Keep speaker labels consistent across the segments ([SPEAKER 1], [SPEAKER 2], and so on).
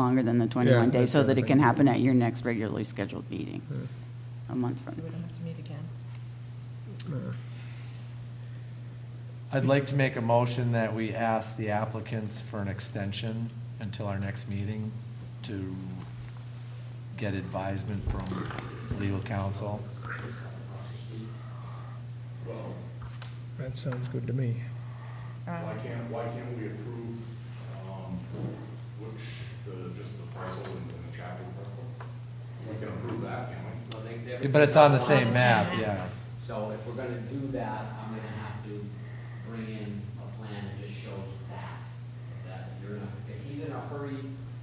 [SPEAKER 1] longer than the 21 days,
[SPEAKER 2] that's
[SPEAKER 1] so
[SPEAKER 2] what
[SPEAKER 1] that
[SPEAKER 2] I
[SPEAKER 1] it can
[SPEAKER 2] think.
[SPEAKER 1] happen at your next regularly scheduled meeting, a month from
[SPEAKER 3] So we don't have to meet again.
[SPEAKER 4] I'd like to make a motion that we ask the applicants for an extension until our next meeting to get advisement from legal counsel.
[SPEAKER 2] That sounds good to me.
[SPEAKER 5] Why can't, why can't we approve, um, which, the, just the parcel and the chapter parcel? We can approve that, can we?
[SPEAKER 6] Well, they- they're-
[SPEAKER 4] But it's on the
[SPEAKER 3] On
[SPEAKER 4] same
[SPEAKER 3] the
[SPEAKER 4] map,
[SPEAKER 3] same
[SPEAKER 4] yeah.
[SPEAKER 3] map.
[SPEAKER 6] So if we're gonna do that, I'm gonna have to bring in a plan that just shows that, that you're not, if he's in a hurry,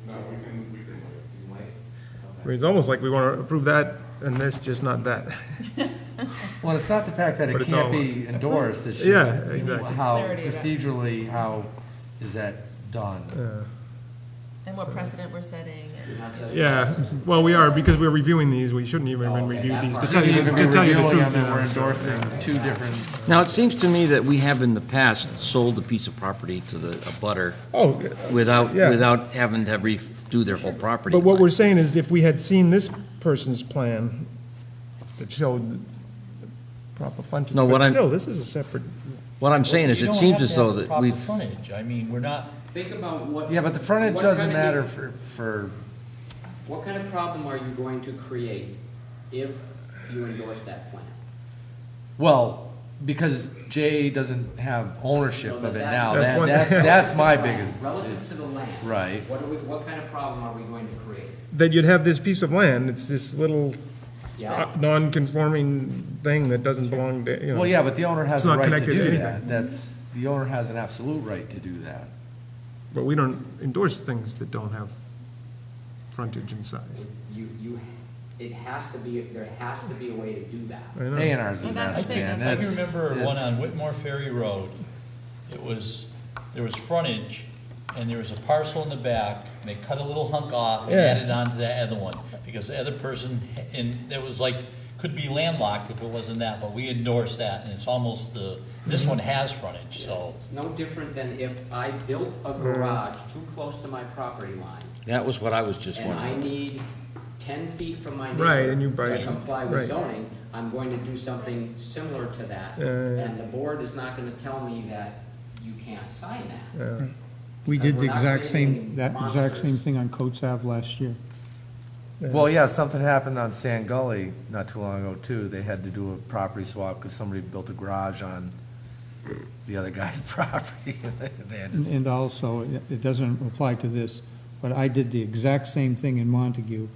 [SPEAKER 5] No, we can, we can wait.
[SPEAKER 6] you wait.
[SPEAKER 2] I
[SPEAKER 6] Okay.
[SPEAKER 2] mean, It's almost like we want to approve that and this, just not that.
[SPEAKER 4] Well, it's not the fact that
[SPEAKER 2] But
[SPEAKER 4] it
[SPEAKER 2] it's
[SPEAKER 4] can't
[SPEAKER 2] all-
[SPEAKER 4] be endorsed, it's
[SPEAKER 2] Yeah,
[SPEAKER 4] just
[SPEAKER 2] exactly.
[SPEAKER 4] how
[SPEAKER 3] Clarity of it.
[SPEAKER 4] procedurally, how is that done?
[SPEAKER 2] Yeah.
[SPEAKER 3] And what precedent we're setting and.
[SPEAKER 6] Not to-
[SPEAKER 2] Yeah, well, we are, because we're reviewing these, we shouldn't even
[SPEAKER 6] Oh, okay,
[SPEAKER 2] review
[SPEAKER 6] that
[SPEAKER 2] these, to
[SPEAKER 6] part.
[SPEAKER 2] tell you,
[SPEAKER 4] Even
[SPEAKER 2] the- to tell you the
[SPEAKER 4] reviewing
[SPEAKER 2] truth.
[SPEAKER 4] them and we're
[SPEAKER 2] you know, so-
[SPEAKER 4] endorsing two different,
[SPEAKER 7] Now, it seems to me that we have in the past sold a piece of property to the, a butter
[SPEAKER 2] Oh,
[SPEAKER 7] without,
[SPEAKER 2] Yeah.
[SPEAKER 7] without having to redo their whole property.
[SPEAKER 2] but what
[SPEAKER 7] line.
[SPEAKER 2] we're saying is if we had seen this person's plan that showed the proper frontage,
[SPEAKER 7] No, what
[SPEAKER 2] but
[SPEAKER 7] I'm-
[SPEAKER 2] still, this is a separate,
[SPEAKER 7] What I'm saying is,
[SPEAKER 8] You
[SPEAKER 7] it
[SPEAKER 8] don't
[SPEAKER 7] seems
[SPEAKER 8] have
[SPEAKER 7] as
[SPEAKER 8] to have
[SPEAKER 7] though
[SPEAKER 8] the
[SPEAKER 7] that
[SPEAKER 8] proper
[SPEAKER 7] we've,
[SPEAKER 8] Frontage, I mean, we're not,
[SPEAKER 6] Think about what.
[SPEAKER 4] yeah, but the frontage
[SPEAKER 6] what kind
[SPEAKER 4] doesn't
[SPEAKER 6] of-
[SPEAKER 4] matter for, for,
[SPEAKER 6] What kind of problem are you going to create if you endorse that plan?
[SPEAKER 4] well, because Jay doesn't have ownership
[SPEAKER 6] So
[SPEAKER 4] of it
[SPEAKER 6] that-
[SPEAKER 4] now,
[SPEAKER 2] That's
[SPEAKER 4] that,
[SPEAKER 2] one-
[SPEAKER 4] that's, that's my biggest.
[SPEAKER 6] Relative to the land.
[SPEAKER 4] Right.
[SPEAKER 6] What are we, what kind of problem are we going to create?
[SPEAKER 2] that you'd have this piece of land, it's this little uh,
[SPEAKER 6] Yeah.
[SPEAKER 2] non-conforming thing that doesn't belong to, you know.
[SPEAKER 4] Well, yeah, but the owner
[SPEAKER 2] It's
[SPEAKER 4] has a
[SPEAKER 2] not
[SPEAKER 4] right to
[SPEAKER 2] connected to
[SPEAKER 4] do
[SPEAKER 2] anything.
[SPEAKER 4] that. That's, the owner has an absolute right to do that.
[SPEAKER 2] But we don't endorse things that don't have frontage and size.
[SPEAKER 6] You, you, it has to be, there has to be a way to do that.
[SPEAKER 2] I
[SPEAKER 4] A
[SPEAKER 2] know.
[SPEAKER 4] and R's a
[SPEAKER 3] Well, that's
[SPEAKER 4] mess,
[SPEAKER 3] the thing,
[SPEAKER 4] man.
[SPEAKER 8] I
[SPEAKER 3] that's-
[SPEAKER 4] That's-
[SPEAKER 8] remember one
[SPEAKER 4] it's-
[SPEAKER 8] on Whitmore Ferry Road. It was, there was frontage, and there was a parcel in the back, and they cut a little hunk off and
[SPEAKER 2] Yeah.
[SPEAKER 8] added on to that other one, because the other person, and that was like, could be landlocked if it wasn't that, but we endorsed that, and it's almost the, this one has frontage, so.
[SPEAKER 6] It's no different than if I built a
[SPEAKER 2] Hmm.
[SPEAKER 6] garage too close to my property line,
[SPEAKER 7] that was what I was just
[SPEAKER 6] and I
[SPEAKER 7] wondering.
[SPEAKER 6] need ten feet from my neighbor.
[SPEAKER 2] Right, and you buy
[SPEAKER 6] To
[SPEAKER 2] it,
[SPEAKER 6] comply with
[SPEAKER 2] right.
[SPEAKER 6] zoning, I'm going to do something similar to that,
[SPEAKER 2] Yeah, yeah, yeah.
[SPEAKER 6] and the board is not gonna tell me that you can't sign that.
[SPEAKER 2] Yeah.
[SPEAKER 9] We
[SPEAKER 6] That
[SPEAKER 9] did
[SPEAKER 6] we're
[SPEAKER 9] the
[SPEAKER 6] not
[SPEAKER 9] exact
[SPEAKER 6] creating
[SPEAKER 9] same, that exact same
[SPEAKER 6] monsters.
[SPEAKER 9] thing on Coates Ave last year.
[SPEAKER 4] Well, yeah, something happened on Sand Gully not too long ago, too. They had to do a property swap because somebody built a garage on the other guy's property. They had to-
[SPEAKER 9] And and also, it it doesn't apply to this, but I did the exact same thing in Montague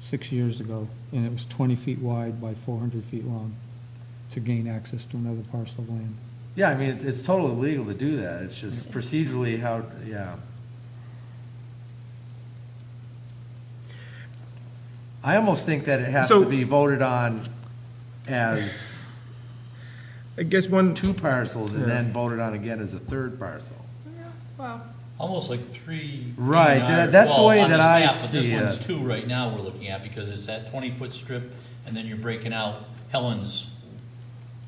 [SPEAKER 9] six years ago, and it was 20 feet wide by 400 feet long to gain access to another parcel of land.
[SPEAKER 4] Yeah, I mean, it's- it's totally legal to do that. It's just procedurally how, yeah. I almost think that it has to
[SPEAKER 2] So-
[SPEAKER 4] be voted on as
[SPEAKER 2] I guess one,
[SPEAKER 4] two parcels and then voted on again as a third parcel.
[SPEAKER 3] Well,
[SPEAKER 8] Almost like three.
[SPEAKER 4] Right,
[SPEAKER 8] being on
[SPEAKER 4] that-
[SPEAKER 8] our-
[SPEAKER 4] that's the
[SPEAKER 8] well,
[SPEAKER 4] way
[SPEAKER 8] on
[SPEAKER 4] that
[SPEAKER 8] this
[SPEAKER 4] I
[SPEAKER 8] map, But this
[SPEAKER 4] see
[SPEAKER 8] one's
[SPEAKER 4] it.
[SPEAKER 8] two right now we're looking at, because it's that twenty-foot strip, and then you're breaking out Helen's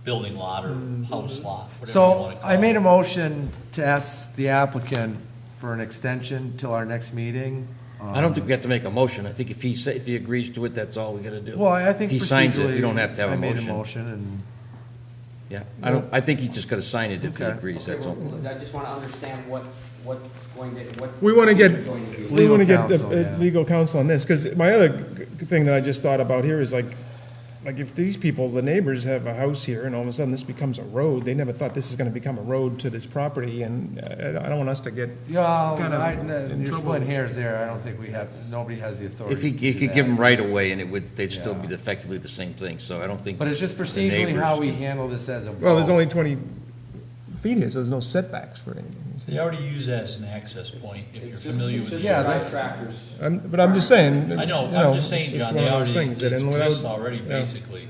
[SPEAKER 8] building lot or
[SPEAKER 2] Mm-hmm.
[SPEAKER 8] house lot, whatever you
[SPEAKER 4] So
[SPEAKER 8] wanna call it.
[SPEAKER 4] I made a motion to ask the applicant for an extension till our next meeting.
[SPEAKER 7] I don't think we have to make a motion. I think if he, sa- if he agrees to it, that's all we gotta do.
[SPEAKER 4] Well, I I think
[SPEAKER 7] If he signs it, we
[SPEAKER 4] procedurally,
[SPEAKER 7] don't have to have
[SPEAKER 4] I
[SPEAKER 7] a
[SPEAKER 4] made a
[SPEAKER 7] motion.
[SPEAKER 4] motion and,
[SPEAKER 7] Yeah, I don't, I think he's just gotta sign it if he
[SPEAKER 4] Okay.
[SPEAKER 7] agrees,
[SPEAKER 6] Okay,
[SPEAKER 7] that's all.
[SPEAKER 6] well, I just wanna understand what, what going to, what.
[SPEAKER 2] We wanna get-
[SPEAKER 6] we're going do.
[SPEAKER 2] we want to get
[SPEAKER 4] Legal counsel,
[SPEAKER 2] the-
[SPEAKER 4] yeah.
[SPEAKER 2] uh, legal counsel on this, because my other g- g- thing that I just thought about here is like, like if these people, the neighbors have a house here, and all of a sudden this becomes a road, they never thought this is going to become a road to this property, and uh, I don't want us to get,
[SPEAKER 4] yeah,
[SPEAKER 2] Kind of
[SPEAKER 4] I-
[SPEAKER 2] in
[SPEAKER 4] you're
[SPEAKER 2] trouble.
[SPEAKER 4] splitting hairs there. I don't think we have, nobody has the authority.
[SPEAKER 7] If he,
[SPEAKER 4] to
[SPEAKER 7] he
[SPEAKER 4] do
[SPEAKER 7] could
[SPEAKER 4] that.
[SPEAKER 7] give them right away, and it would, they'd still be
[SPEAKER 4] Yeah.
[SPEAKER 7] effectively the same thing, so I don't think.
[SPEAKER 4] But it's just
[SPEAKER 7] the
[SPEAKER 4] procedurally how
[SPEAKER 7] neighbors-
[SPEAKER 4] we handle this as a.
[SPEAKER 2] well, there's
[SPEAKER 4] vote.
[SPEAKER 2] only 20 feet here, so there's no setbacks for anything.
[SPEAKER 8] They already use that as an access point, if you're
[SPEAKER 6] It's just-
[SPEAKER 8] familiar with
[SPEAKER 6] It's
[SPEAKER 8] it.
[SPEAKER 6] just
[SPEAKER 4] Yeah,
[SPEAKER 6] drive
[SPEAKER 4] that's-
[SPEAKER 6] tractors.
[SPEAKER 2] I'm- But I'm just saying.
[SPEAKER 8] I know,
[SPEAKER 2] you
[SPEAKER 8] I'm just
[SPEAKER 2] it's
[SPEAKER 8] saying,
[SPEAKER 2] one
[SPEAKER 8] John, they
[SPEAKER 2] of those
[SPEAKER 8] already,
[SPEAKER 2] things
[SPEAKER 8] it
[SPEAKER 2] that in- without-
[SPEAKER 8] exists already,
[SPEAKER 2] yeah.
[SPEAKER 8] basically.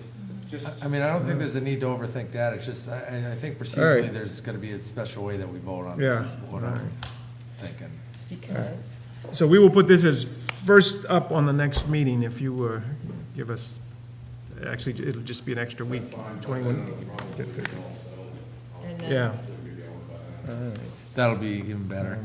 [SPEAKER 6] Just,
[SPEAKER 4] I mean, I don't think there's a need to overthink that. It's just, I, I- I think procedurally, there's gonna be a special way that we vote on this,
[SPEAKER 2] Yeah.
[SPEAKER 4] is what I'm thinking.
[SPEAKER 3] because,
[SPEAKER 2] So we will put this as first up on the next meeting if you uh, give us, actually, it'll just be an extra week, 21.
[SPEAKER 3] and then.
[SPEAKER 2] Yeah,
[SPEAKER 4] That'll be even better.